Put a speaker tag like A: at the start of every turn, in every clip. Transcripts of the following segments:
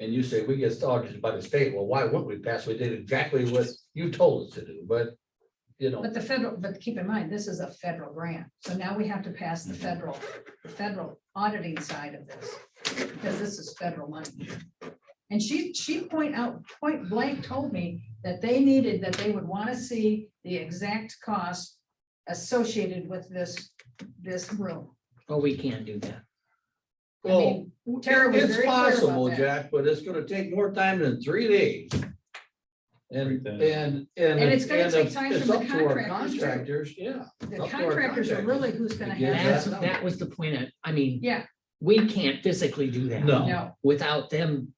A: And you say we get audited by the state, well, why wouldn't we pass? We did exactly what you told us to do, but, you know,
B: But the federal, but keep in mind, this is a federal grant, so now we have to pass the federal, federal auditing side of this, because this is federal money. And she, she point out, point blank told me that they needed, that they would want to see the exact cost associated with this, this room.
C: Well, we can't do that.
B: I
A: well,
B: mean, Tara was
A: it's
B: very clear about
A: possible,
B: that.
A: Jack, but it's gonna take more time than three days. And,
D: Right
A: and,
D: there.
A: and.
B: And it's gonna
A: and
B: take
A: if
B: time
A: it's
B: from the
A: up to our
B: contractors,
A: Contractors,
B: too.
A: yeah.
B: The
A: Up to our
B: contractors are really who's gonna
A: Yeah,
C: That's,
B: have,
A: that's-
C: that was the point. of- I mean,
B: yeah,
C: we can't physically do that.
A: No.
B: no,
C: Without them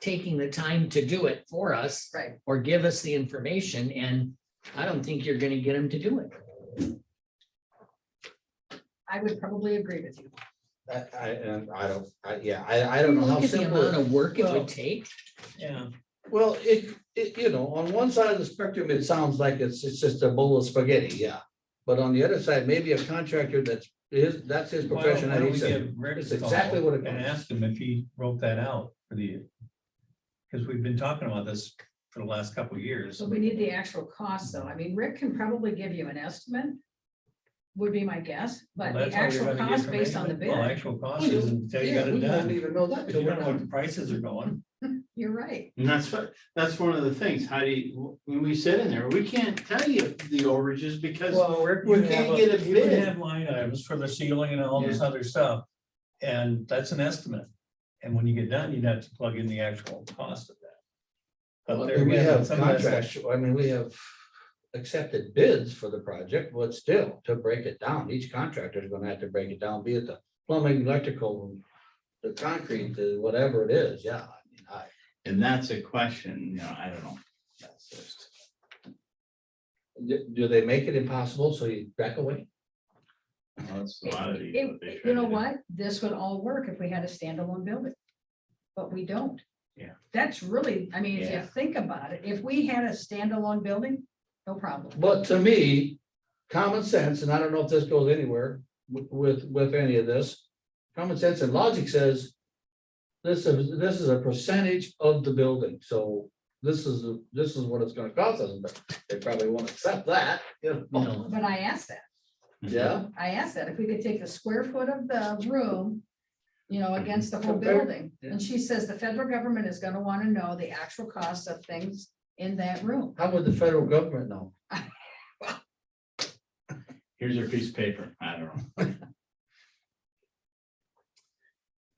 C: taking the time to do it for us
B: right,
C: or give us the information and I don't think you're gonna get them to do it.
B: I would probably agree with you.
A: I, I, and I don't, I, yeah, I, I don't know how
C: Look at the
A: simple.
C: amount
A: it-
C: of work it
A: Well-
C: would take. Yeah.
A: Well, it, it, you know, on one side of the spectrum, it sounds like it's, it's just a bowl of spaghetti, yeah. But on the other side, maybe a contractor that's, is, that's his
D: Why don't-
A: profession,
D: why
A: and
D: don't
A: he
D: we
A: said,
D: give Rick
A: it's
D: a call
A: exactly what it
D: And
A: costs.
D: ask him if he wrote that out for the, because we've been talking about this for the last couple of years.
B: So we need the actual cost, though. I mean, Rick can probably give you an estimate. Would be my guess, but
D: Well,
B: the
D: that's all you're
B: actual
D: gonna get
B: cost
D: from
B: based on the
D: anybody. Well,
B: bid,
D: actual cost is until you
A: Yeah,
D: got it
A: we don't
D: done,
A: even know that.
D: because
A: till
D: you
A: we're
D: don't know what
A: done.
D: the prices are going.
B: you're right.
E: And that's what, that's one of the things, how do you, when we sit in there, we can't tell you the overages because
D: Well, Rick,
E: we can't get a
D: You would
E: bid.
D: have line items for the ceiling and all this other stuff, and that's an estimate. And when you get done, you'd have to plug in the actual cost of that. But there
A: And we
D: again,
A: have
D: some of that's-
A: contracts, I mean, we have accepted bids for the project, but still, to break it down, each contractor is gonna have to break it down, be it the plumbing, electrical, the concrete, the whatever it is, yeah. I mean, I-
E: And that's a question, you know, I don't know. That's just-
A: Do, do they make it impossible so you back away?
E: That's a lot of these.
B: It-
E: what they
B: it-
E: try
B: you
E: to
B: know
E: do.
B: what? This would all work if we had a standalone building. But we don't.
E: Yeah.
B: That's really, I mean, if you
E: Yeah.
B: think about it, if we had a standalone building, no problem.
A: But to me, common sense, and I don't know if this goes anywhere wi- with, with any of this, common sense and logic says this is, this is a percentage of the building, so this is, this is what it's gonna cost us, but they probably won't accept that, you know?
C: No.
B: But I asked that,
A: Yeah,
B: I asked that, if we could take the square foot of the room, you know, against the whole
A: Compare-
B: building. And she says the federal government is gonna wanna know the actual cost of things in that room.
A: how would the federal government know?
E: Here's your piece of paper. I don't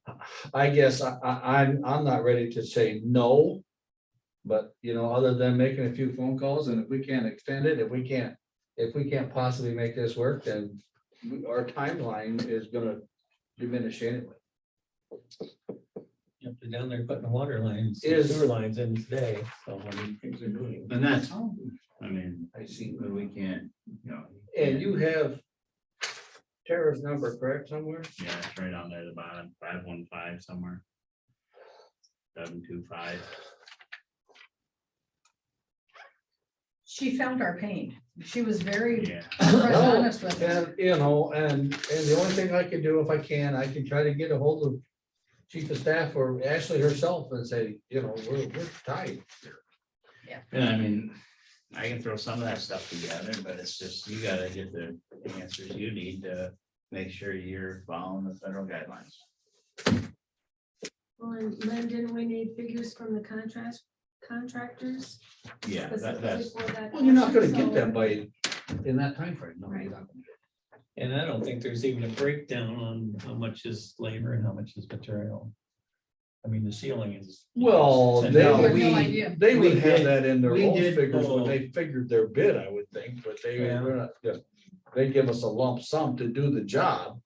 E: know.
A: I guess I, I, I'm, I'm not ready to say no. But, you know, other than making a few phone calls and if we can't extend it, if we can't, if we can't possibly make this work, then we- our timeline is gonna diminish anyway.
D: Yep, they're down there putting water lines,
A: Is-
D: sewer lines in today, so I mean, things are moving.
E: And that's,
B: Oh.
E: I mean,
A: I see.
E: but we can't, you know.
A: And you have Tara's number, correct, somewhere?
E: Yeah, it's right on there, at the bottom, five one five somewhere. Seven two five.
B: She felt our pain. She was very
E: Yeah.
A: No,
B: honest with us.
A: And, you know, and, and the only thing I can do if I can, I can try to get a hold of chief of staff or Ashley herself and say, you know, we're, we're tight.
E: And I mean, I can throw some of that stuff together, but it's just, you gotta get the answers you need to make sure you're following the federal guidelines.
F: Well, and Lynn, didn't we need figures from the contract, contractors?
E: Yeah, that,
F: specifically
E: that's,
F: for that
A: Well, you're not gonna
F: question?
A: get
F: So-
A: that by, in that timeframe, no, you're
F: Right.
A: not. gonna get
D: And I don't think there's even a breakdown on how much is labor and how much is material. I mean, the ceiling is.
A: Well,
D: Ten
A: they-
B: We
D: dollars.
B: have
A: we-
B: no idea.
A: it. They would
E: We
A: have
E: did-
A: that in their
E: we
A: own
E: did
A: figures when
E: pull-
A: they figured their bid, I would think, but they,
D: Yeah.
A: they're not, yeah. They give us a lump sum to do the job.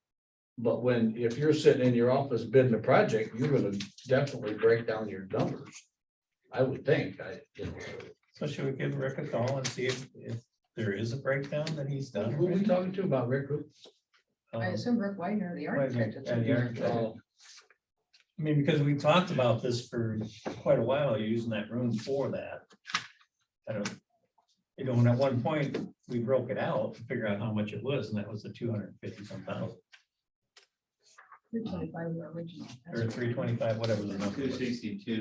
A: But when, if you're sitting in your office bidding a project, you're gonna definitely break down your numbers. I would think, I, you know,
D: So should we give Rick a call and see if, if there is a breakdown that he's done?
A: who are we
D: already?
A: talking to about Rick? Rupe?
D: Um,
B: I assume Rick Wagner, the architect. is
D: Yeah, the
B: doing
D: architect.
B: it.
A: Oh,
D: I mean, because we talked about this for quite a while, using that room for that. I don't, you know, and at one point, we broke it out, to figure out how much it was, and that was the two hundred and fifty some thousand,
B: Three twenty-five were original. That's
D: or
B: right.
D: three twenty-five, whatever the number
E: two
D: was.
E: sixty-two.